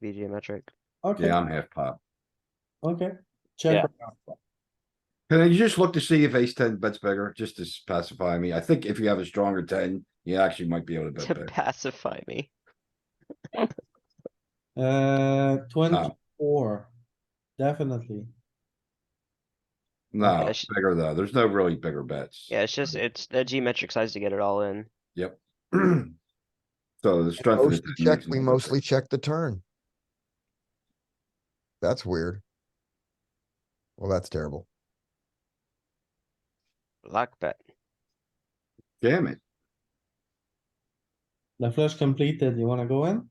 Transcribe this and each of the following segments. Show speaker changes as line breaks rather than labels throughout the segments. to be geometric.
Okay,
Yeah, I'm half pop.
okay. Check.
Yeah.
or not.
Can you just look to see if ace ten bets bigger, just to s- pacify me? I think if you have a stronger ten, you actually might be able to
To
bet big.
pacify me.
Uh, twenty-four, definitely.
No,
sh-
bigger though. There's no really bigger bets.
Yeah, it's just, it's the geometric size to get it all in.
So the strength. of the
Most
10
check,
makes it
we
a little
mostly
bit-
check the turn. That's weird. Well, that's terrible.
Lock bet.
Damn it.
The flush completed, you wanna go in?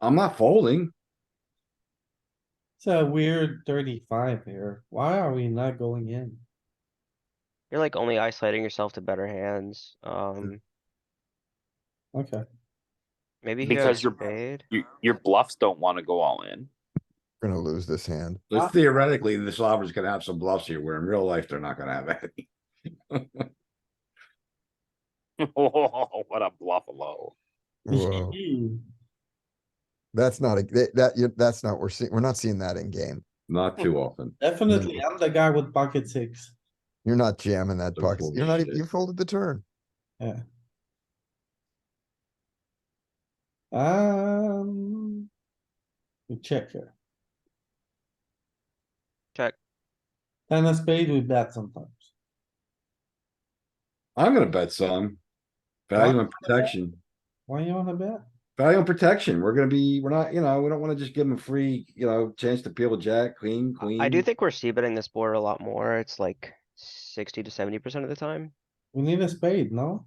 I'm not folding.
It's a weird thirty-five here. Why are we not going in?
You're like only isolating yourself to better hands. Um,
Okay,
maybe here
Because you're-
spade.
You, your bluffs don't wanna go all in.
We're Gonna lose this hand.
So Theoretically, the solver's gonna have some bluffs here, where in real life, they're not gonna have any.
Oh, what a bluffalo.
Whoa, that's not a, that, that, you- that's not, we're seeing, we're not seeing that in game.
Not
Hmm.
too often.
definitely, I'm the guy with pocket six.
You're not jamming that
The
pocket. You're not, even-
bullshit.
you folded the turn.
Um. We check here.
Check.
And a spade we bet sometimes.
I'm gonna bet some. Value and protection.
Why you wanna bet?
Value and protection. We're gonna be, we're not, you know, we don't wanna just give them a free, you know, chance to peel a jack, queen, queen.
I do think we're c betting this board a lot more. It's like sixty to seventy percent of the time.
We need a spade, no?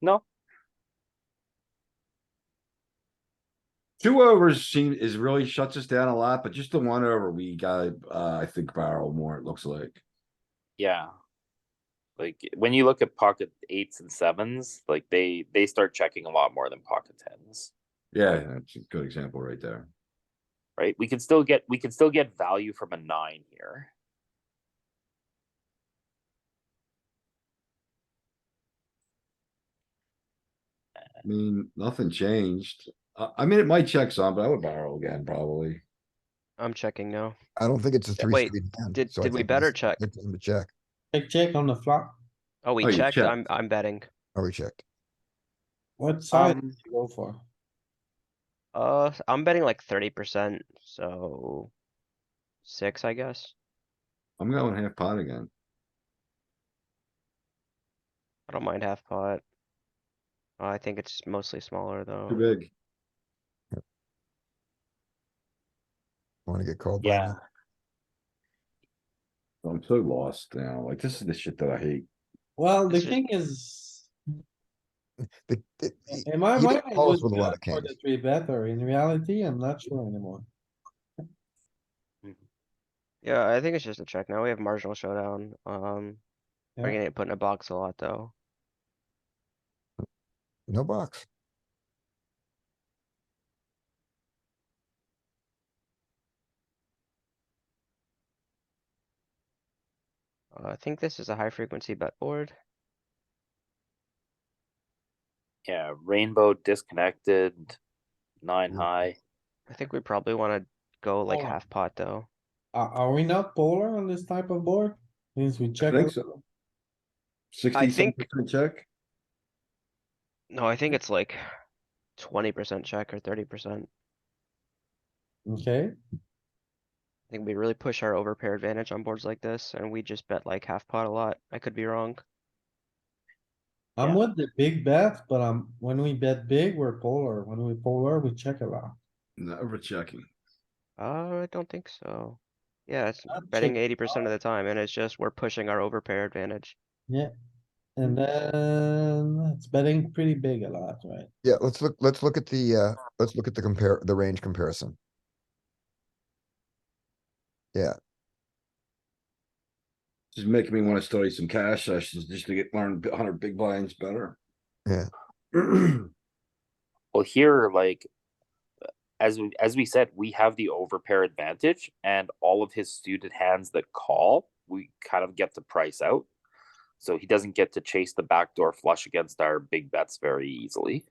No,
Two overs seem, is really shuts us down a lot, but just the one over, we gotta, uh, I think barrel more, it looks like.
yeah. Like, when you look at pocket eights and sevens, like they, they start checking a lot more than pocket tens.
Yeah, that's a good example right there.
Right? We can still get, we can still get value from a nine here.
I mean, nothing changed. I, I mean, it might check some, but I would barrel again, probably.
I'm checking now.
I don't think it's a
Yeah,
three.
wait,
straight hand,
did-
so I
did we
think
better
it's-
check?
It's in the check.
Check, check on the flop.
Oh,
Oh,
we
you
checked.
checked.
I'm, I'm betting.
Oh, we checked.
What side
Um,
you go for?
Uh, I'm betting like thirty percent, so. Six, I guess.
I'm going half pot again.
I don't mind half pot. Uh, I think it's mostly smaller
Too
though.
big.
Wanna get called? by
Yeah.
that.
I'm so lost now. Like, this is the shit that I hate.
Well, the
This is-
thing is,
The- it- it-
in my
he
mind,
didn't
it
call us
was
with a lot
better
of
for the
kings.
three better. In reality, I'm not sure anymore.
Yeah, I think it's just a check. Now we have marginal showdown. Um,
Yeah.
we're gonna put in a box a lot though.
No box.
Uh, I think this is a high frequency bet board.
Yeah, rainbow disconnected, nine high.
I think we probably wanna go like
Oh.
half pot though.
Are, are we not polar on this type of board? Means we
I
check.
think
it-
so. Sixty-seven
think-
percent check?
No, I think it's like twenty percent check or thirty percent.
Okay,
I think we really push our overpair advantage on boards like this, and we just bet like half pot a lot. I could be wrong.
I'm
Yeah.
with the big bet, but um, when we bet big, we're polar. When we polar, we check a lot.
Never checking.
Uh, I don't think so. Yeah, it's
Not check
betting eighty percent of the time, and it's just we're pushing our overpair advantage.
And then it's betting pretty big a lot, right?
Yeah, let's look, let's look at the, uh, let's look at the compare, the range comparison.
Just making me wanna study some cash sessions just to get, learn a hundred big blinds better.
Yeah.
Well, here, like, as we, as we said, we have the overpair advantage, and all of his suited hands that call, we kind of get to price out. So he doesn't get to chase the backdoor flush against our big bets very easily.